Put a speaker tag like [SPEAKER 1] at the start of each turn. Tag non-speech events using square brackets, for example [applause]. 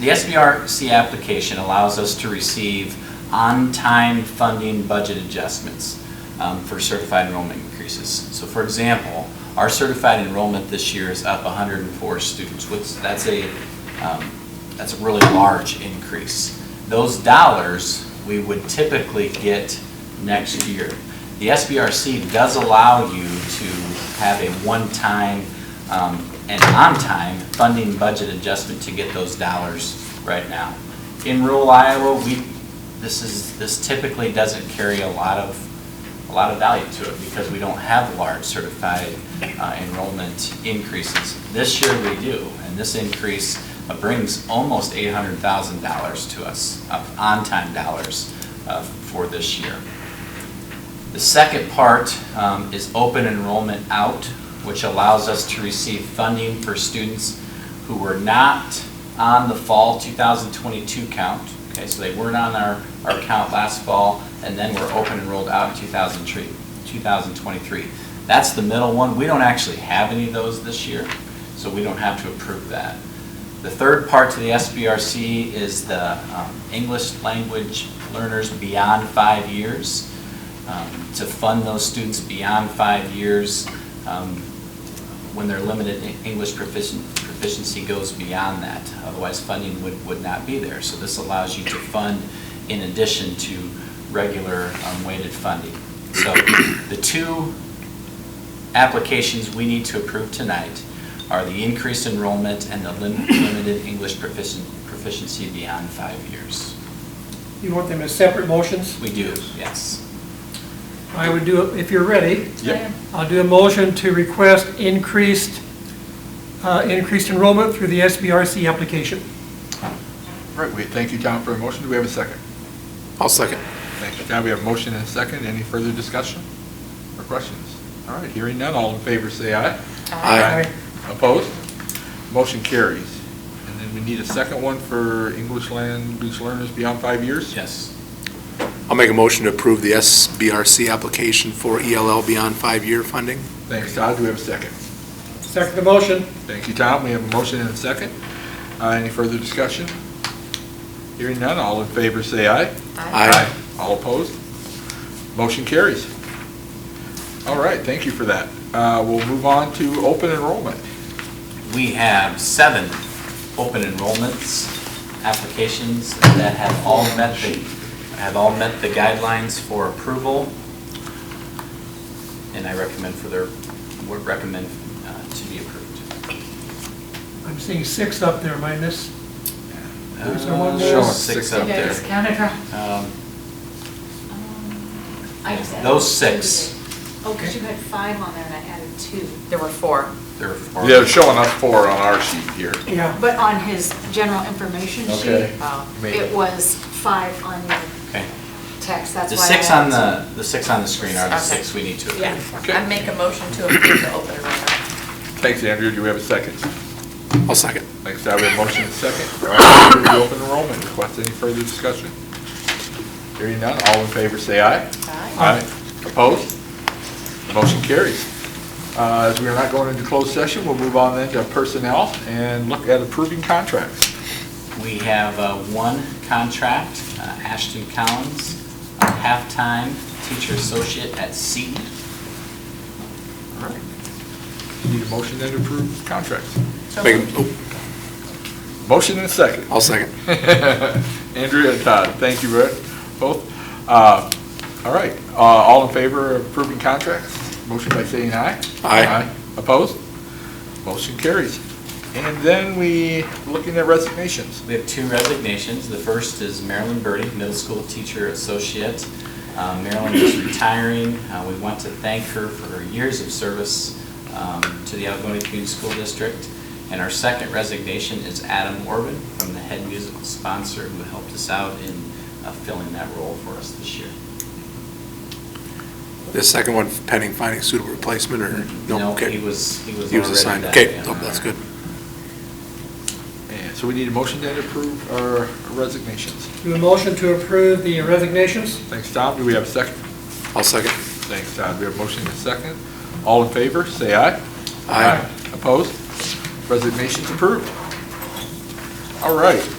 [SPEAKER 1] The SBRC application allows us to receive on-time funding budget adjustments um, for certified enrollment increases. So for example, our certified enrollment this year is up 104 students, which, that's a, um, that's a really large increase. Those dollars, we would typically get next year. The SBRC does allow you to have a one-time um, and on-time funding budget adjustment to get those dollars right now. In rural Iowa, we, this is, this typically doesn't carry a lot of, a lot of value to it because we don't have large certified uh, enrollment increases. This year we do, and this increase brings almost $800,000 to us, of on-time dollars uh, for this year. The second part um, is open enrollment out, which allows us to receive funding for students who were not on the fall 2022 count. Okay, so they weren't on our, our count last fall, and then were open enrolled out in 2003 2023. That's the middle one. We don't actually have any of those this year, so we don't have to approve that. The third part to the SBRC is the um, English language learners beyond five years um, to fund those students beyond five years um, when their limited en- English proficien- proficiency goes beyond that. Otherwise, funding would, would not be there. So this allows you to fund in addition to regular um, weighted funding. So the two applications we need to approve tonight are the increased enrollment and the lim- limited English proficien- proficiency beyond five years.
[SPEAKER 2] You want them as separate motions?
[SPEAKER 1] We do, yes.
[SPEAKER 2] I would do, if you're ready,
[SPEAKER 3] Yep.
[SPEAKER 2] I'll do a motion to request increased, uh, increased enrollment through the SBRC application.
[SPEAKER 3] All right, we thank you, John, for a motion. Do we have a second?
[SPEAKER 4] I'll second.
[SPEAKER 3] Thank you, John. We have a motion and a second. Any further discussion or questions? All right, hearing none, all in favor, say aye.
[SPEAKER 4] Aye.
[SPEAKER 3] Opposed? Motion carries. And then we need a second one for English language learners beyond five years?
[SPEAKER 1] Yes.
[SPEAKER 4] I'll make a motion to approve the SBRC application for ELL beyond five-year funding.
[SPEAKER 3] Thanks, Todd. Do we have a second?
[SPEAKER 2] Second the motion.
[SPEAKER 3] Thank you, Tom. We have a motion and a second. Uh, Any further discussion? Hearing none, all in favor, say aye.
[SPEAKER 4] Aye.
[SPEAKER 3] All opposed? Motion carries. All right, thank you for that. Uh, We'll move on to open enrollment.
[SPEAKER 1] We have seven open enrollments, applications that have all met the, have all met the guidelines for approval. And I recommend for their, would recommend uh, to be approved.
[SPEAKER 2] I'm seeing six up there, am I in this? There's no one
[SPEAKER 1] Uh,
[SPEAKER 2] there.
[SPEAKER 1] Six up
[SPEAKER 5] Yeah,
[SPEAKER 1] there.
[SPEAKER 5] just counted wrong.
[SPEAKER 1] Um,
[SPEAKER 5] I just added
[SPEAKER 1] Those
[SPEAKER 5] two
[SPEAKER 1] six.
[SPEAKER 5] today. Oh, because you had five on there and I added two.
[SPEAKER 6] There were four.
[SPEAKER 1] There are four.
[SPEAKER 3] They're showing us four on our sheet here.
[SPEAKER 2] Yeah.
[SPEAKER 5] But on his general information sheet,
[SPEAKER 3] Okay.
[SPEAKER 6] Oh.
[SPEAKER 3] Maybe.
[SPEAKER 5] it was five on your
[SPEAKER 1] Okay.
[SPEAKER 5] text, that's
[SPEAKER 1] The
[SPEAKER 5] why. I
[SPEAKER 1] six on
[SPEAKER 5] added
[SPEAKER 1] the, the six on the screen are the
[SPEAKER 6] Okay.
[SPEAKER 1] six we need to approve.
[SPEAKER 6] Yeah,
[SPEAKER 3] Okay.
[SPEAKER 6] I make a motion to approve the open enrollment.
[SPEAKER 3] Thanks, Andrew. Do we have a second?
[SPEAKER 4] I'll second.
[SPEAKER 3] Thanks, Todd. We have a motion and a second. All right, we'll move to open enrollment request. Any further discussion? Hearing none, all in favor, say aye.
[SPEAKER 2] Aye.
[SPEAKER 3] Opposed? Motion carries. Uh, As we are not going into closed session, we'll move on then to personnel and look at approving contracts.
[SPEAKER 1] We have uh, one contract, uh, Ashton Collins, a half-time teacher associate at Seton.
[SPEAKER 3] All right. Need a motion then to approve contracts.
[SPEAKER 6] So
[SPEAKER 4] Make,
[SPEAKER 6] moved.
[SPEAKER 4] a- oh,
[SPEAKER 3] Motion and a second. [laughs]
[SPEAKER 4] I'll second.
[SPEAKER 3] Andrea and Todd, thank you Brett, both. Uh, All right, Uh, all in favor of approving contracts? Motion by saying aye.
[SPEAKER 4] Aye.
[SPEAKER 3] Opposed? Motion carries. And then we, looking at resignations.
[SPEAKER 1] We have two resignations. The first is Marilyn Birdie, middle school teacher associate. Uh, Marilyn is retiring. Uh, We want to thank her for her years of service um, to the Algonquin Community School District. And our second resignation is Adam Orvin from the head musical sponsor who helped us out in uh, filling that role for us this year.
[SPEAKER 4] The second one pending finding suitable replacement or, no, okay.
[SPEAKER 1] he was, he was already.
[SPEAKER 4] He was assigned,
[SPEAKER 1] that,
[SPEAKER 4] okay,
[SPEAKER 1] yeah.
[SPEAKER 4] oh, that's good.
[SPEAKER 3] And so we need a motion then to approve our resignations.
[SPEAKER 2] Do a motion to approve the resignations?
[SPEAKER 3] Thanks, Tom. Do we have a second?
[SPEAKER 4] I'll second.
[SPEAKER 3] Thanks, Todd. We have a motion and a second. All in favor, say aye.
[SPEAKER 4] Aye.
[SPEAKER 3] Opposed? Resignation's approved. All right.